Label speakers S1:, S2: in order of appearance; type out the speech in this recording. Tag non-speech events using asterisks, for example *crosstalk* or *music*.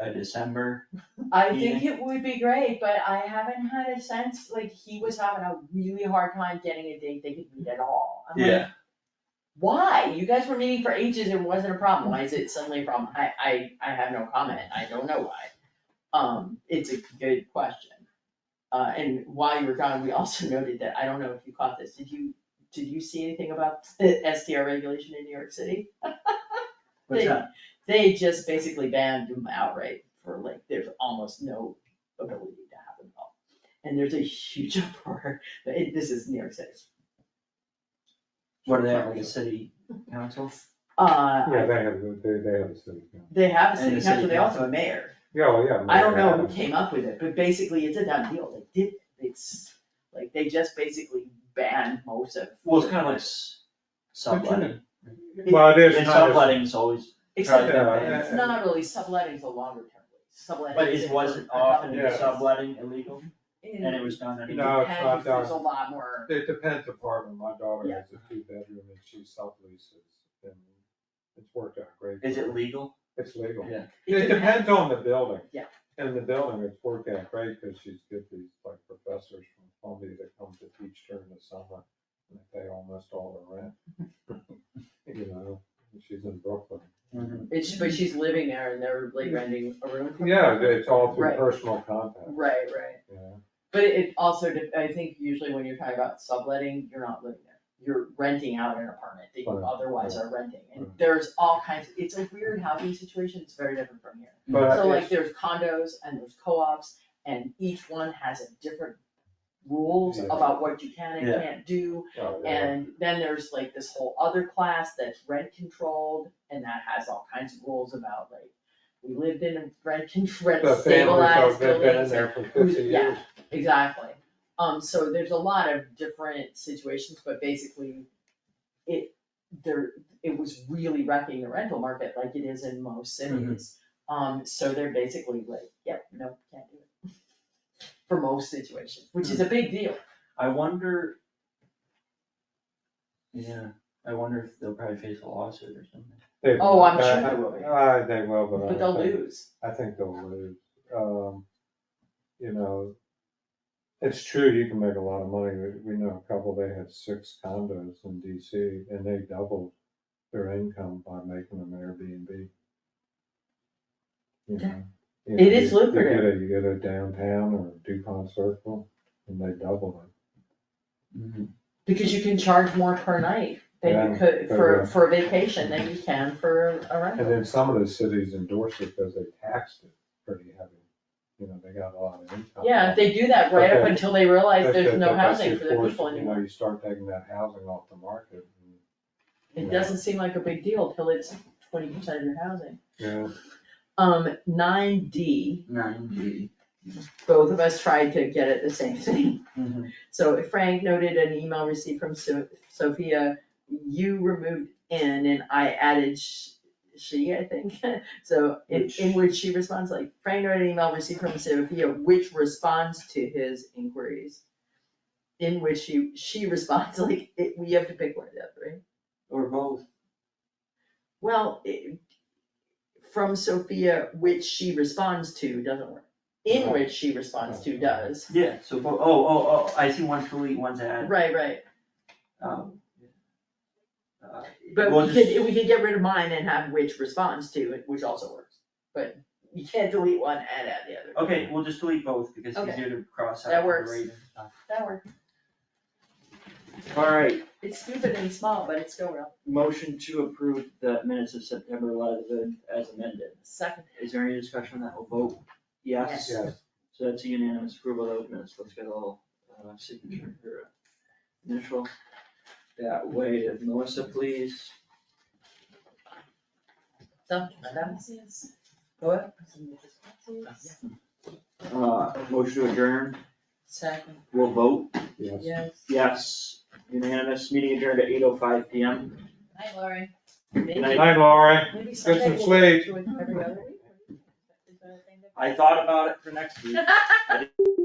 S1: a uh, December,
S2: I think it would be great, but I haven't had a sense, like, he was having a really hard time getting a date they could meet at all. I'm like,
S1: yeah,
S2: Why? You guys were meeting for ages and it wasn't a problem, why is it suddenly a problem? I, I, I have no comment, I don't know why. Um, it's a good question. Uh, and while you were gone, we also *laughs* noted that, I don't know if you caught this, did you, did you see anything about the STR regulation in New York City? *laughs*
S1: what's
S2: They-
S1: that?
S2: They just basically banned them outright for like, there's almost no ability to have them at all. And there's a huge *laughs* uproar, but it- this is New York City.
S1: What do they have, like
S2: *laughs*
S1: a city council?
S2: Uh,
S3: Yeah,
S2: I-
S3: they have, they, they have a city council.
S2: they have a
S1: And
S2: city
S1: the city
S2: council, they also have a
S1: council.
S2: mayor.
S3: Yeah, well, yeah.
S2: I don't know
S3: Manhattan.
S2: who came up with it, but basically it's a done deal, they did, it's, like, they just basically banned most of.
S1: Well, it's kind of like s- subletting,
S3: Well, it is
S1: and
S3: kind of,
S1: subletting is always,
S2: Except,
S1: Yeah,
S2: that
S3: yeah,
S2: it's
S3: yeah.
S2: not really, subletting's a longer term, lease. subletting.
S1: but
S2: is
S1: it wasn't
S2: a couple
S1: often
S3: Yeah.
S1: subletting illegal, and it was done
S2: It
S1: anyway.
S3: No, it's
S2: depends,
S3: not
S2: there's a
S3: done.
S2: lot more,
S3: it depends apartment, my daughter
S2: Yeah.
S3: has a two bedroom and she subleases, and it's worked out great.
S1: Is
S3: for
S1: it
S3: her.
S1: legal?
S3: It's legal.
S1: Yeah.
S3: It depends on the building.
S2: Yeah.
S3: And the building, it's worked out great, because she's got these like professors from Columbia that come to teach during the summer, and they pay almost all the
S2: *laughs*
S3: rent. You know, and she's in Brooklyn.
S2: it's, but she's living there and they're like renting a room. from her.
S3: Yeah, it's all through
S2: Right.
S3: personal contact,
S2: Right, right,
S3: Yeah.
S2: but it also, de- I think usually when you're talking about subletting, you're not living there, you're renting out an apartment that you
S3: Right,
S2: otherwise are renting. And
S3: right.
S2: there's all kinds, it's a weird housing situation, it's very different from here.
S3: But
S2: So like
S3: it's-
S2: there's condos and there's co-ops and each one has a different rules
S3: Yeah.
S2: about what you can and
S1: Yeah.
S2: can't do.
S3: oh, yeah.
S2: And then there's like this whole other class that's rent controlled and that has all kinds of rules about like, we lived in a rent con- *laughs* rent
S3: The families
S2: stabilized
S3: have been in
S2: buildings.
S3: there for
S2: who's-
S3: fifty
S2: yeah.
S3: years.
S2: Exactly. Um, so there's a lot of different situations, but basically it, there, it was really wrecking the rental market like it is in most cities.
S3: Mm-hmm.
S2: Um, so they're basically like, yep, no, can't do it. *laughs* For most situations, which
S3: Hmm.
S2: is a big deal.
S1: I wonder. Yeah, I wonder if they'll probably face a lawsuit or something.
S3: They-
S2: Oh, I'm sure
S3: I-
S2: they will be.
S3: I- Uh, they will, but I.
S2: But they'll
S3: think-
S2: lose.
S3: I think they'll lose. Um, you know, it's true, you can make a lot of money. We- We know a couple, they had six condos in DC and they doubled their income by making them Airbnb. You know, you know,
S2: It is
S3: you- you
S2: lucrative.
S3: get a- You get a downtown or Dupont Circle and they double
S1: Mm-hmm.
S2: Because you can charge more per night than you
S3: Yeah,
S2: could
S3: they
S2: for,
S3: will.
S2: for a vacation than you can for a
S3: it. And
S2: rental.
S3: then some of the cities endorse it because they taxed it pretty heavy. You know, they got a lot of income.
S2: Yeah, if they do that right up
S3: Okay.
S2: until they realize
S3: That's
S2: there's
S3: the-
S2: no
S3: that's
S2: housing
S3: your
S2: for the
S3: force,
S2: people
S3: you know,
S2: anymore.
S3: You start taking that housing off the market. and-
S2: It
S3: Yeah.
S2: doesn't seem like a big deal till it's twenty percent of your housing.
S3: Yeah,
S2: Um, nine D,
S1: Nine G.
S2: both of us tried to get at the same thing.
S1: Mm-hmm.
S2: So if Frank noted an email received from So- Sophia, you removed in and I added sh- she, I think. *laughs* So in,
S3: Which-
S2: in which she responds like, Frank noted an email received from Sophia, which responds to his inquiries. In which she, she responds *laughs* like, it- we have to pick one of the other, right?
S1: Or both.
S2: Well, it- from Sophia, which she responds to doesn't work. In
S3: Right.
S2: which she responds to does.
S1: Yeah, so, bo- oh, oh, oh, I see one's delete, one's add.
S2: Right, right.
S1: Um, uh,
S2: But
S1: we'll
S2: we
S1: just-
S2: could, we could get rid of mine and have which responds to, which also works. But you can't delete one and add the other.
S1: Okay, we'll just delete both because it's
S2: Okay.
S1: easier to cross out.
S2: That
S1: and
S2: works.
S1: read and stuff.
S2: That works.
S1: Alright,
S2: It's stupid and small, but it's still real.
S1: motion to approve the minutes of September eleventh as amended.
S2: Second,
S1: Is there any discussion on that? We'll vote yes.
S2: Yes.
S3: yes,
S1: So that's a unanimous approval of those minutes. Let's get all uh, signature or initial. That way, if Melissa, please.
S2: so, Madam, go ahead.
S1: Uh, motion to adjourn.
S2: Second,
S1: We'll vote
S3: yes.
S2: yes.
S1: yes. Unanimous. Meeting adjourned at eight oh five P M.
S2: Hi, Lori.
S1: night.
S2: Maybe,
S3: Hi, Laura,
S2: maybe
S3: get
S2: someday
S3: some
S2: we'll
S3: sleep.
S2: do it every other week. or- Is that a thing that-
S1: I thought about it for next week.